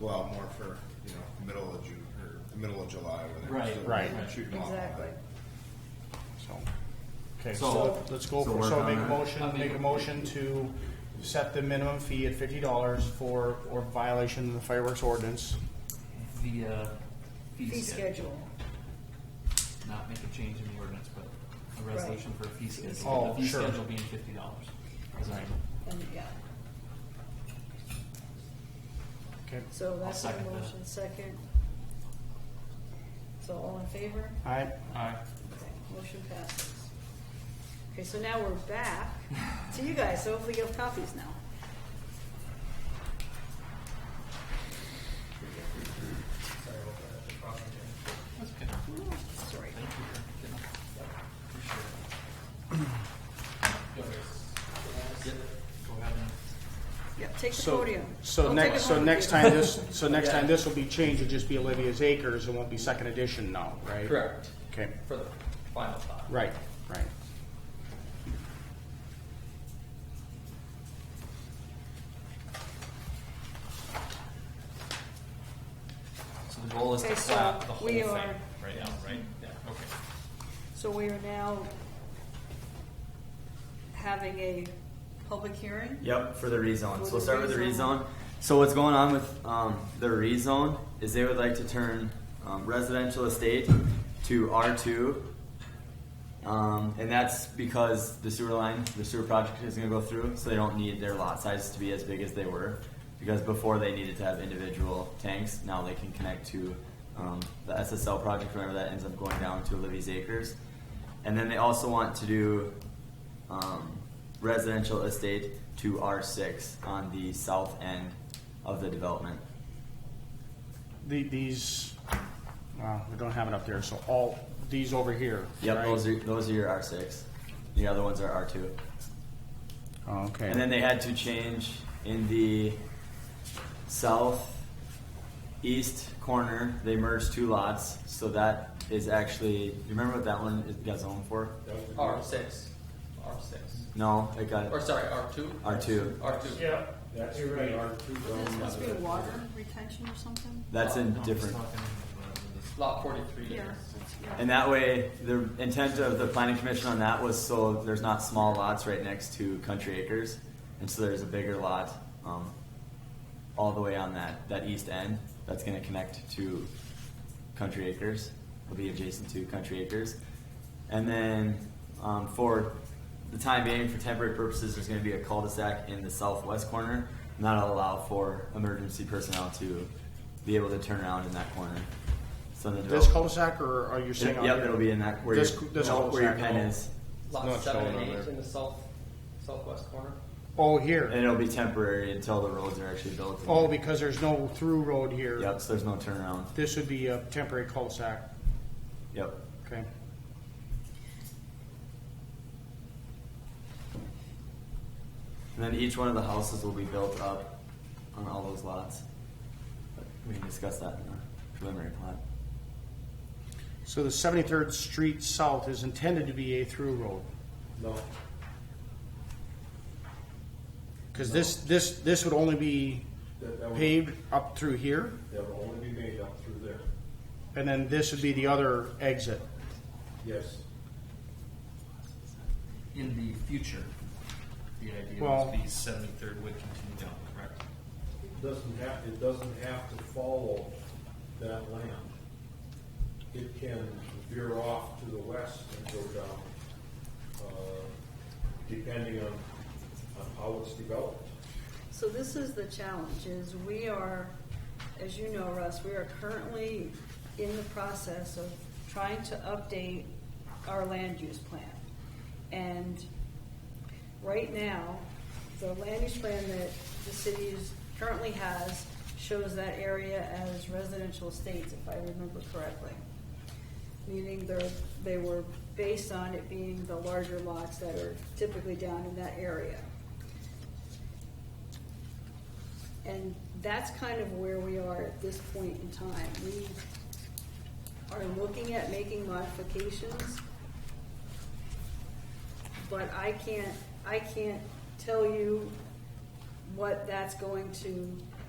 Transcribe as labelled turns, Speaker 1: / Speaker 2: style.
Speaker 1: go out more for, you know, middle of June, or the middle of July, where they're
Speaker 2: Right,
Speaker 1: still
Speaker 2: right.
Speaker 1: shooting off.
Speaker 3: Exactly.
Speaker 1: So,
Speaker 2: Okay,
Speaker 4: So-
Speaker 2: so let's go
Speaker 4: so
Speaker 2: for,
Speaker 4: work
Speaker 2: so
Speaker 4: on
Speaker 2: make a
Speaker 4: that.
Speaker 2: motion,
Speaker 4: I'll make
Speaker 2: make a
Speaker 4: a
Speaker 2: motion to set the minimum fee at fifty dollars for, or violation of the fireworks ordinance.
Speaker 4: via
Speaker 3: Fee
Speaker 4: uh, fee schedule.
Speaker 3: schedule.
Speaker 4: Not make a change in the ordinance, but a resolution for a fee schedule.
Speaker 2: schedule.
Speaker 4: The fee
Speaker 2: Oh, sure.
Speaker 4: schedule being fifty dollars.
Speaker 3: And, yeah,
Speaker 2: Okay,
Speaker 3: so that's my
Speaker 4: second that.
Speaker 3: motion, second. So all in favor?
Speaker 2: I,
Speaker 4: Aye.
Speaker 3: Okay, Motion passes. Okay, so now we're back to you guys, so hopefully you have copies now.
Speaker 4: That's good.
Speaker 3: Sorry.
Speaker 4: Thank you for getting up. Appreciate it. Yep. Go ahead and,
Speaker 3: Yep, take the
Speaker 2: so,
Speaker 3: podium.
Speaker 2: so
Speaker 3: Don't
Speaker 2: next,
Speaker 3: take it
Speaker 2: so
Speaker 3: home
Speaker 2: next
Speaker 3: with
Speaker 2: time this, so next
Speaker 4: Yeah.
Speaker 2: time this will be changed, it'll just be Olivia's Acres, it won't be second edition now, right?
Speaker 4: correct,
Speaker 2: Okay,
Speaker 4: for the final thought.
Speaker 2: right, right.
Speaker 4: So the goal is
Speaker 3: Okay,
Speaker 4: to
Speaker 3: so
Speaker 4: slap the whole
Speaker 3: we
Speaker 4: thing
Speaker 3: are-
Speaker 4: right now, right? Yeah, okay.
Speaker 3: you. So we are now having a public hearing?
Speaker 5: Yep, for the rezone.
Speaker 3: For
Speaker 5: So we'll
Speaker 3: the
Speaker 5: start with the
Speaker 3: rezone.
Speaker 5: rezone. So what's going on with um, the rezone is they would like to turn um, residential estate to R2. Um, and that's because the sewer line, the sewer project is gonna go through, so they don't need their lot sizes to be as big as they were. Because before they needed to have individual tanks, now they can connect to um, the SSL project, whenever that ends up going down to Olivia's Acres. And then they also want to do um, residential estate to R6 on the south end of the development.
Speaker 2: The, these, uh, we don't have it up there, so all, these over here,
Speaker 5: Yep,
Speaker 2: right?
Speaker 5: those are, those are your R6. The other ones are R2.
Speaker 2: Okay.
Speaker 5: And then they had to change in the south east corner, they merged two lots, so that is actually, you remember what that one is got zoned for?
Speaker 6: R six, R six,
Speaker 5: No, it got
Speaker 6: or sorry, R two?
Speaker 5: R two.
Speaker 6: R two.
Speaker 7: Yeah, that's right, R two
Speaker 3: Is this
Speaker 7: zone.
Speaker 3: supposed to be water retention or something?
Speaker 5: That's in
Speaker 4: No, just
Speaker 5: different.
Speaker 4: talking about this.
Speaker 6: Lot forty-three.
Speaker 3: Yeah, that's, yeah.
Speaker 5: And that way, the intent of the planning commission on that was so there's not small lots right next to country acres. And so there's a bigger lot, um, all the way on that, that east end, that's gonna connect to country acres, will be adjacent to country acres. And then, um, for the time being, for temporary purposes, there's gonna be a cul-de-sac in the southwest corner. And that'll allow for emergency personnel to be able to turn around in that corner. So the
Speaker 2: This
Speaker 5: develop-
Speaker 2: cul-de-sac, or are you saying?
Speaker 5: Yep,
Speaker 2: on
Speaker 5: yep,
Speaker 2: here?
Speaker 5: it'll be in that where
Speaker 2: This-
Speaker 5: your,
Speaker 2: this
Speaker 5: no, where your
Speaker 2: cul-de-sac.
Speaker 5: pen is,
Speaker 2: not
Speaker 6: Lot seven
Speaker 2: shown on
Speaker 6: and eight
Speaker 2: there.
Speaker 6: in the south, southwest corner.
Speaker 2: Oh,
Speaker 5: and
Speaker 2: here.
Speaker 5: it'll be temporary until the roads are actually built.
Speaker 2: Oh, because there's no through road here.
Speaker 5: Yep, so there's no turnaround.
Speaker 2: This would be a temporary cul-de-sac,
Speaker 5: Yep.
Speaker 2: okay?
Speaker 5: And then each one of the houses will be built up on all those lots. But we can discuss that in the preliminary plan.
Speaker 2: So the Seventy-third Street South is intended to be a through road,
Speaker 7: No,
Speaker 2: because this, this, this would only be
Speaker 7: that, that would,
Speaker 2: paved up through here,
Speaker 7: that would only be made up through there,
Speaker 2: and then this would be the other exit.
Speaker 7: yes.
Speaker 4: in the future, the idea
Speaker 2: Well-
Speaker 4: was the seventy-third would continue down, correct?
Speaker 7: It Doesn't have, it doesn't have to follow that land. It can veer off to the west and go down, uh, depending on, on how it's developed.
Speaker 3: So this is the challenge, is we are, as you know, Russ, we are currently in the process of trying to update our land use plan. And right now, the land use plan that the city is- currently has shows that area as residential estates, if I remember correctly. Meaning they're, they were based on it being the larger lots that are typically down in that area. And that's kind of where we are at this point in time. We are looking at making modifications. But I can't, I can't tell you what that's going to